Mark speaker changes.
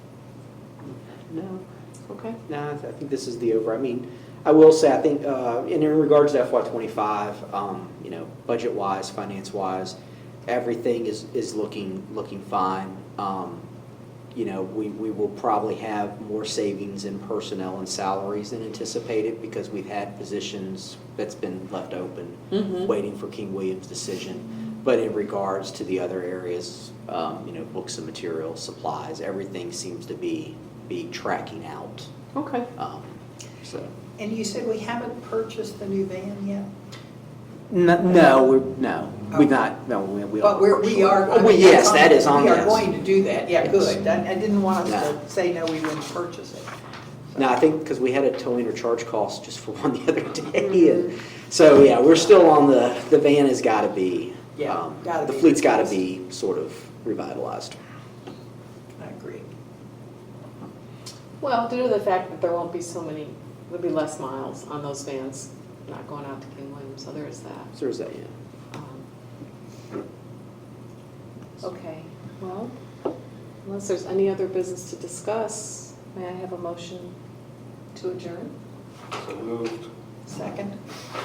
Speaker 1: No, okay, no, I th- I think this is the over, I mean, I will say, I think, uh, in in regards to FY twenty-five, um, you know, budget-wise, finance-wise, everything is, is looking, looking fine. Um, You know, we, we will probably have more savings in personnel and salaries than anticipated because we've had positions that's been left open,
Speaker 2: Mhm.
Speaker 1: waiting for King William's decision. But in regards to the other areas, um, you know, books and materials, supplies, everything seems to be, be tracking out.
Speaker 2: Okay.
Speaker 1: Um, So,
Speaker 3: And you said we haven't purchased the new van yet?
Speaker 1: N- no, we're, no, we're not, no, we, we are.
Speaker 3: But we're, we are.
Speaker 1: Oh, well, yes, that is on
Speaker 3: We
Speaker 1: the
Speaker 3: are going to do that, yeah,
Speaker 1: Yes.
Speaker 3: good. I I didn't want
Speaker 1: Yeah.
Speaker 3: us to say, no, we wouldn't purchase it.
Speaker 1: No, I think, because we had a towing or charge cost just for one the other day,
Speaker 3: Mm-hmm.
Speaker 1: and, so, yeah, we're still on the, the van has gotta be.
Speaker 3: Yeah,
Speaker 1: um,
Speaker 3: gotta
Speaker 1: The
Speaker 3: be
Speaker 1: fleet's gotta
Speaker 3: replaced.
Speaker 1: be sort of revitalized.
Speaker 3: I agree.
Speaker 2: Well, due to the fact that there won't be so many, there'll be less miles on those vans not going out to King William, so there is that.
Speaker 1: So is that, yeah.
Speaker 2: Um, Okay, well, unless there's any other business to discuss, may I have a motion to adjourn?
Speaker 4: So moved.
Speaker 3: Second?